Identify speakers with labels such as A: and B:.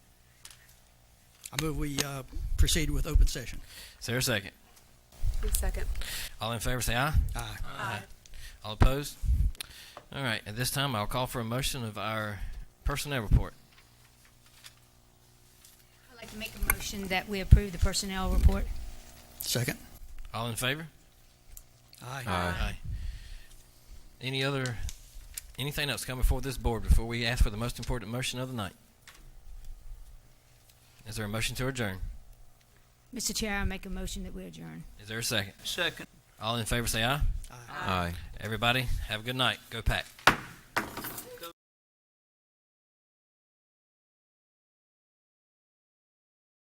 A: I move we uh, proceed with open session.
B: Is there a second?
C: Second.
B: All in favor, say aye.
A: Aye.
C: Aye.
B: All opposed? All right, at this time, I'll call for a motion of our personnel report.
D: I'd like to make a motion that we approve the personnel report.
A: Second?
B: All in favor?
A: Aye.
B: Any other, anything else come before this board before we ask for the most important motion of the night? Is there a motion to adjourn?
D: Mr. Chair, I make a motion that we adjourn.
B: Is there a second?
E: Second.
B: All in favor, say aye.
E: Aye.
B: Everybody, have a good night. Go pack.